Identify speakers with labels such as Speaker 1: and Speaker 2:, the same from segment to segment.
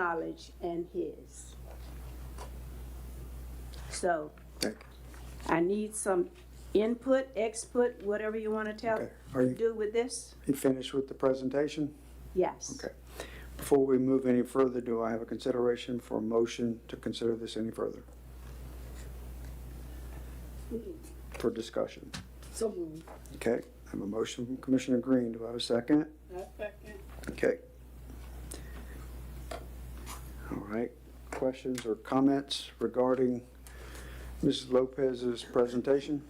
Speaker 1: knowledge and his. So
Speaker 2: Okay.
Speaker 1: I need some input, exput, whatever you want to tell,
Speaker 2: Okay. Are you-
Speaker 1: do with this?
Speaker 2: You finished with the presentation?
Speaker 1: Yes.
Speaker 2: Okay. Before we move any further, do I have a consideration for a motion to consider this any further? For discussion?
Speaker 3: So moved.
Speaker 2: Okay, I have a motion from Commissioner Green. Do I have a second? Okay. All right, questions or comments regarding Mrs. Lopez's presentation?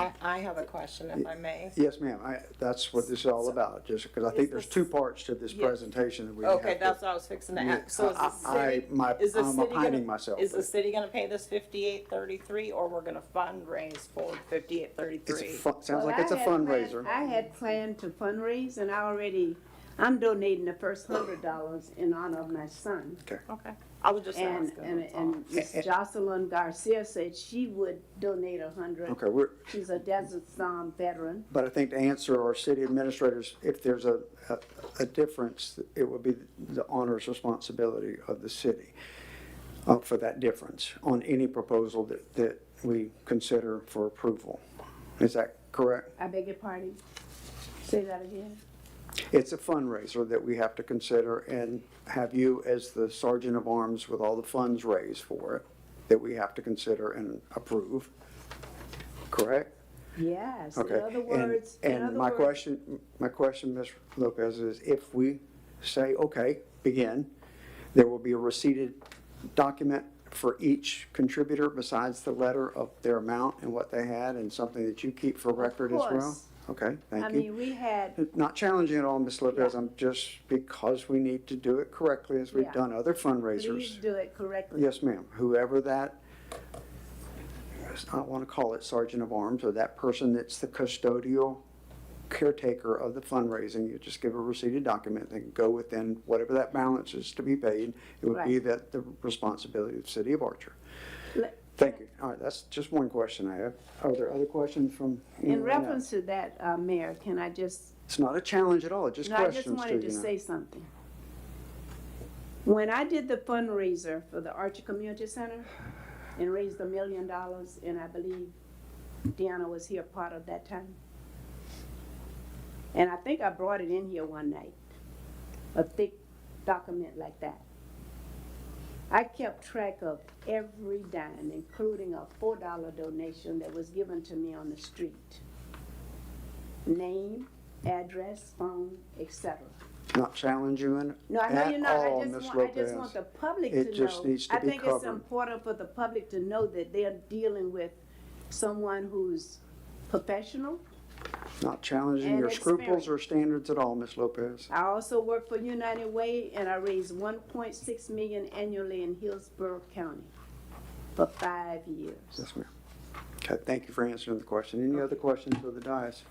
Speaker 4: I, I have a question, if I may.
Speaker 2: Yes, ma'am, I, that's what this is all about, just because I think there's two parts to this presentation that we have
Speaker 4: Okay,
Speaker 2: to-
Speaker 4: that's what I was fixing to
Speaker 2: Yeah,
Speaker 4: ask. So is
Speaker 2: I-
Speaker 4: the city?
Speaker 2: I- my-
Speaker 4: is the
Speaker 2: I'm
Speaker 4: city gonna-
Speaker 2: opining myself,
Speaker 4: Is the
Speaker 2: but-
Speaker 4: city gonna pay this fifty-eight thirty-three, or we're gonna fundraise for fifty-eight
Speaker 2: It's a
Speaker 4: thirty-three?
Speaker 2: fun, sounds like
Speaker 1: Well,
Speaker 2: it's a
Speaker 1: I had planned-
Speaker 2: fundraiser.
Speaker 1: I had planned to fundraise and I already, I'm donating the first hundred dollars in honor of my son.
Speaker 4: Okay, I was just
Speaker 1: And,
Speaker 4: asking.
Speaker 1: and,
Speaker 4: that's all.
Speaker 1: and Miss
Speaker 2: Eh,
Speaker 1: Jocelyn Garcia said she would donate a hundred.
Speaker 2: Okay, we're,
Speaker 1: She's a Desert Storm veteran.
Speaker 2: but I think to answer our city administrators, if there's a, a, a difference, it would be the honor's responsibility of the city uh, for that difference on any proposal that, that we consider for approval. Is that correct?
Speaker 1: I beg your pardon? Say that again?
Speaker 2: It's a fundraiser that we have to consider and have you as the sergeant of arms with all the funds raised for it that we have to consider and approve, correct?
Speaker 1: Yes, in
Speaker 2: Okay.
Speaker 1: other
Speaker 2: and-
Speaker 1: words, in other
Speaker 2: And my
Speaker 1: words,
Speaker 2: question, my question, Ms. Lopez, is if we say, okay, begin, there will be a receipted document for each contributor besides the letter of their amount and what they had and something that you keep for record as well?
Speaker 1: course.
Speaker 2: Okay,
Speaker 1: I
Speaker 2: thank you.
Speaker 1: mean, we had,
Speaker 2: Not challenging at all, Ms. Lopez, I'm just, because we need to do it correctly as we've
Speaker 1: Yeah.
Speaker 2: done other
Speaker 1: please
Speaker 2: fundraisers.
Speaker 1: do it correctly.
Speaker 2: Yes, ma'am, whoever that, I don't want to call it sergeant of arms, or that person that's the custodial caretaker of the fundraising, you just give a receipted document, they can go within whatever that balance is to be paid. It would be
Speaker 1: Right.
Speaker 2: that the responsibility of the city of Archer.
Speaker 1: Le-
Speaker 2: Thank you. All right, that's just one question I have. Are there other questions from?
Speaker 1: In
Speaker 2: anyone else?
Speaker 1: reference to that, uh, Mayor, can I just
Speaker 2: It's not a challenge at all, it's just
Speaker 1: No, I just
Speaker 2: questions to you.
Speaker 1: wanted to
Speaker 2: now.
Speaker 1: say something. When I did the fundraiser for the Archer Community Center and raised a million dollars, and I believe Deanna was here part of that time. And I think I brought it in here one night, a thick document like that. I kept track of every dime, including a four dollar donation that was given to me on the street. Name, address, phone, etc.
Speaker 2: Not challenging
Speaker 1: No, I know
Speaker 2: at
Speaker 1: you're not,
Speaker 2: all,
Speaker 1: I
Speaker 2: Ms.
Speaker 1: just want, I
Speaker 2: Lopez.
Speaker 1: just want the public to know.
Speaker 2: It just needs to be
Speaker 1: I think it's
Speaker 2: covered.
Speaker 1: important for the public to know that they're dealing with someone who's professional.
Speaker 2: not challenging
Speaker 1: and
Speaker 2: your scruples or standards at all, Ms. Lopez.
Speaker 1: I also work for United Way and I raise one point six million annually in Hillsborough County for five years.
Speaker 2: Yes, ma'am. Okay, thank you for answering the question. Any other questions for the dais?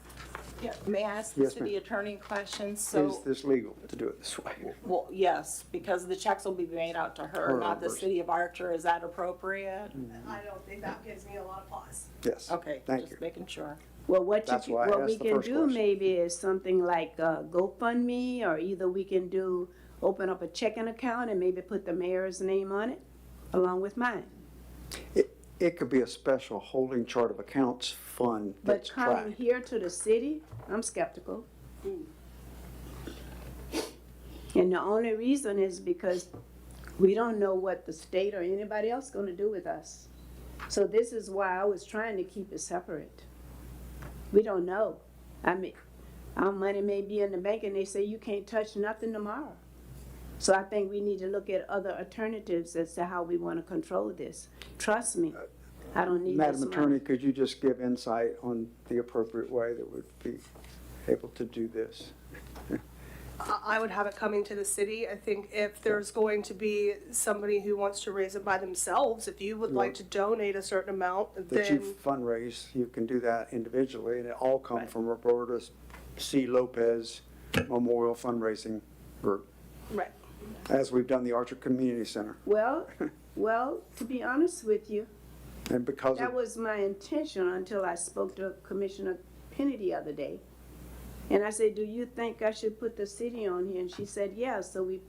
Speaker 4: Yeah, May I ask the
Speaker 2: Yes, ma'am.
Speaker 4: city attorney questions?
Speaker 2: Is
Speaker 4: So,
Speaker 2: this legal to do it this way?
Speaker 4: well, yes, because the checks will be made out to her,
Speaker 2: Her
Speaker 4: not the
Speaker 2: numbers.
Speaker 4: city of Archer. Is that appropriate?
Speaker 5: I don't think that gives me a lot of pause.
Speaker 2: Yes.
Speaker 4: Okay,
Speaker 2: Thank you.
Speaker 4: just making sure.
Speaker 1: Well, what you,
Speaker 2: That's
Speaker 1: can-
Speaker 2: why I
Speaker 1: what we
Speaker 2: asked the
Speaker 1: can
Speaker 2: first
Speaker 1: do
Speaker 2: question.
Speaker 1: maybe is something like uh, GoFundMe, or either we can do, open up a checking account and maybe put the mayor's name on it, along with mine.
Speaker 2: It, it could be a special holding chart of accounts fund
Speaker 1: But
Speaker 2: that's
Speaker 1: coming
Speaker 2: tracked.
Speaker 1: here to the city, I'm skeptical. And the only reason is because we don't know what the state or anybody else gonna do with us. So this is why I was trying to keep it separate. We don't know. I mean, our money may be in the bank and they say you can't touch nothing tomorrow. So I think we need to look at other alternatives as to how we wanna control this. Trust me, I don't need this
Speaker 2: Madam
Speaker 1: money.
Speaker 2: Attorney, could you just give insight on the appropriate way that would be able to do this?
Speaker 5: I I would have it coming to the city. I think if there's going to be somebody who wants to raise it by themselves, if you would like to donate a certain amount,
Speaker 2: That
Speaker 5: then
Speaker 2: you fundraise, you can do that individually, and it all come from Roberta C. Lopez Memorial Fundraising Group,
Speaker 5: right.
Speaker 2: as we've done the Archer Community Center.
Speaker 1: Well, well, to be honest with you,
Speaker 2: And because of
Speaker 1: that was my intention until I spoke to Commissioner Penny the other day. And I said, do you think I should put the city on here? And she said, yes. so we